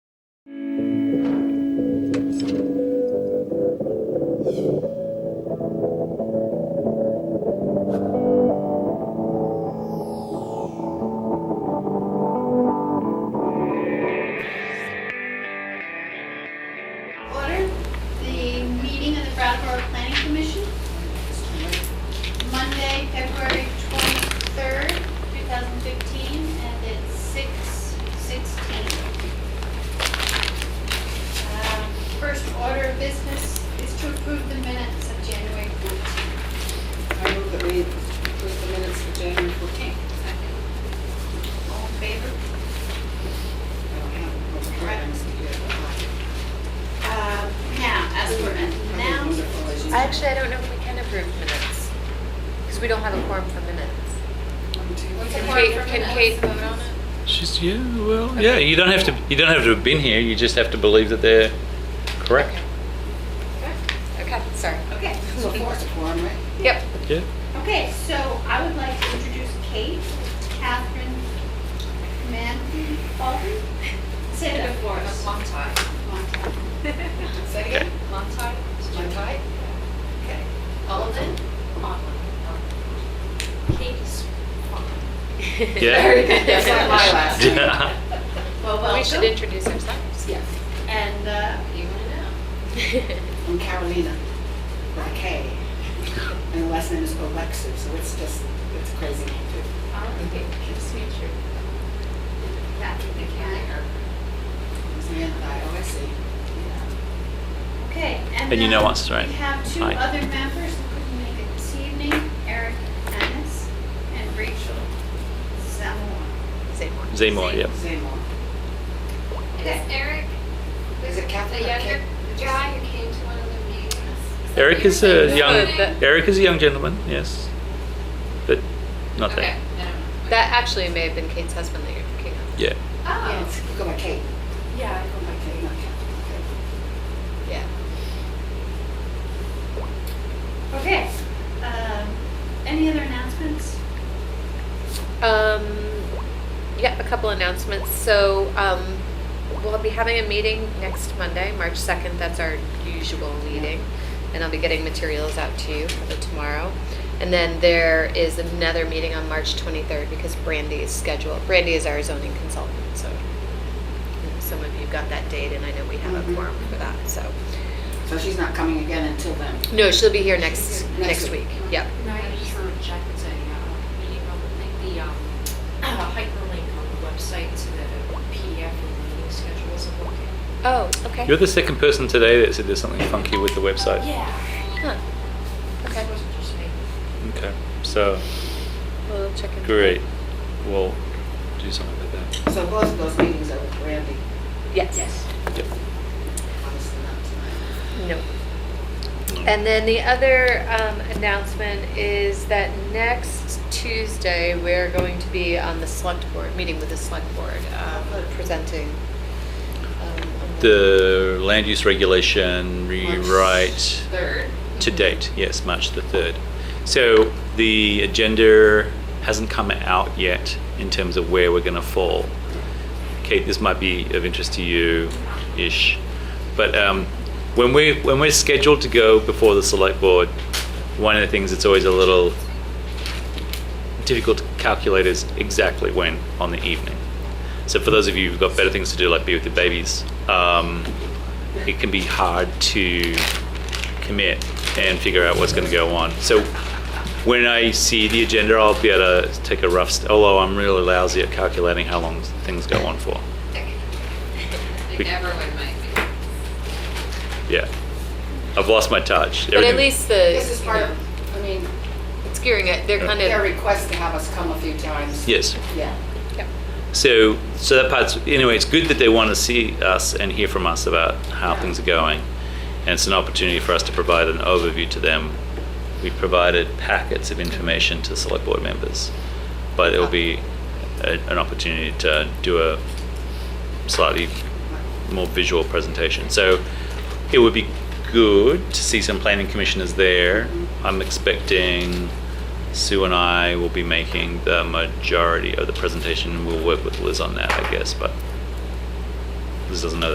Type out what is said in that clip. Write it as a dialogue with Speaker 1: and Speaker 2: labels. Speaker 1: Order the meeting of the Brattleboro Planning Commission, Monday, February 23rd, 2015, and it's 6:16. Um, First order of business is to approve the minutes of January 14th.
Speaker 2: I move that we approve the minutes for January 14th.
Speaker 1: All in favor?
Speaker 2: I don't have the right items here.
Speaker 1: Uh, Now, as we're at now,
Speaker 2: Wonderful, as you
Speaker 3: Actually, I don't know if we can approve minutes, because we don't have a quorum for minutes.
Speaker 1: what's the
Speaker 3: Can
Speaker 1: order
Speaker 3: Kate,
Speaker 1: for
Speaker 3: can
Speaker 1: minutes?
Speaker 3: Kate vote on it?
Speaker 4: She's yeah, well, yeah. You don't have to. You don't have to have been here. You just have to believe that they're correct.
Speaker 3: Okay, sorry.
Speaker 1: Okay.
Speaker 2: So four is a quorum, right?
Speaker 3: Yep.
Speaker 4: Yeah.
Speaker 1: Okay, so I would like to introduce Kate, Catherine Manley Baldwin. Say it before us.
Speaker 5: Long time. Say
Speaker 4: Okay.
Speaker 5: again? Long time? Long time? Okay. Alden? Katie's.
Speaker 4: Yeah.
Speaker 5: That's not my last. name.
Speaker 4: yeah.
Speaker 1: Well,
Speaker 3: We should
Speaker 1: welcome.
Speaker 3: introduce ourselves.
Speaker 2: Yes.
Speaker 1: And uh,
Speaker 5: You wanna know?
Speaker 2: I'm Carolina, with a K. And the last name is Alexu, so it's just, it's crazy.
Speaker 5: Okay, nice to meet you.
Speaker 1: Catherine Mechanic.
Speaker 2: Samantha, I always see.
Speaker 1: Okay.
Speaker 4: And you know
Speaker 1: then
Speaker 4: us, right?
Speaker 1: We have two
Speaker 4: Hi.
Speaker 1: other members who couldn't make it this evening, Eric Annis and Rachel Zamora.
Speaker 3: Seymour.
Speaker 4: Seymour. Yep.
Speaker 2: Zamor.
Speaker 6: Is
Speaker 1: Okay.
Speaker 6: Eric
Speaker 2: Is it
Speaker 6: the
Speaker 2: Catholic?
Speaker 6: younger guy who came to one of the meetings?
Speaker 4: Eric is a
Speaker 3: Good,
Speaker 4: young.
Speaker 3: that-
Speaker 4: Eric is a young gentleman. Yes. But not
Speaker 6: Okay,
Speaker 4: that.
Speaker 6: no. okay.
Speaker 3: That actually may have been Kate's husband that you're thinking of.
Speaker 4: Yeah.
Speaker 2: Yeah,
Speaker 6: Oh,
Speaker 2: it's- you go by Kate.
Speaker 5: Yeah,
Speaker 2: Go by Kate, not Catherine.
Speaker 3: Yeah.
Speaker 1: Okay. um, Any other announcements?
Speaker 3: Um, yeah, a couple announcements. So, um, we'll be having a meeting next Monday, March 2nd. That's our usual meeting. And I'll be getting materials out to you for tomorrow. And then there is another meeting on March 23rd because Brandy is scheduled. Brandy is our zoning consultant, so some of you got that date and I know we have a
Speaker 2: Mhm.
Speaker 3: quorum for that, so.
Speaker 2: Okay. So she's not coming again until then.
Speaker 3: No, she'll be here next,
Speaker 2: Next
Speaker 3: next
Speaker 2: week.
Speaker 3: week. Yep.
Speaker 5: No, I just want to check the, uh, meeting on the, the, um, a hyperlink on the website so that a PDF of the meeting schedules are working.
Speaker 3: Oh, okay.
Speaker 4: You're the second person today that said there's something funky with the website.
Speaker 5: Yeah.
Speaker 3: Huh. Okay,
Speaker 5: It wasn't just me.
Speaker 4: Okay. So
Speaker 3: we'll check in.
Speaker 4: great. We'll do something with that.
Speaker 2: So both of those meetings are with Randy,
Speaker 3: Yes.
Speaker 4: Yep.
Speaker 2: obviously not tonight.
Speaker 3: No. And then the other um, announcement is that next Tuesday, we're going to be on the select board, meeting with the select board, um, presenting. um, on
Speaker 4: The land use regulation rewrite.
Speaker 2: Third.
Speaker 4: to date, yes, March the 3rd. So the agenda hasn't come out yet in terms of where we're going to fall. Kate, this might be of interest to you ish. But um, when, we, when we're scheduled to go before the select board, one of the things that's always a little difficult to calculate is exactly when on the evening. So for those of you who've got better things to do, like be with your babies, um, it can be hard to commit and figure out what's going to go on. So when I see the agenda, I'll be able to take a rough. St- although I'm really lousy at calculating how long things go on for.
Speaker 6: You never would make it.
Speaker 4: Yeah, I've lost my touch.
Speaker 3: But at
Speaker 4: Everything-
Speaker 3: least
Speaker 2: This is part
Speaker 3: the,
Speaker 2: of, I mean,
Speaker 3: it's gearing it, they're kind
Speaker 2: their
Speaker 3: of,
Speaker 2: request to have us come a few times.
Speaker 4: Yes.
Speaker 2: Yeah.
Speaker 3: Yep.
Speaker 4: So, so that part's anyway. It's good that they want to see us and hear from us about how things are going, and it's an opportunity for us to provide an overview to them. We provided packets of information to select board members, but it'll be a, an opportunity to do a slightly more visual presentation. So, it would be good to see some planning commissioners there. I'm expecting Sue and I will be making the majority of the presentation. We'll work with Liz on that, I guess, but Liz doesn't know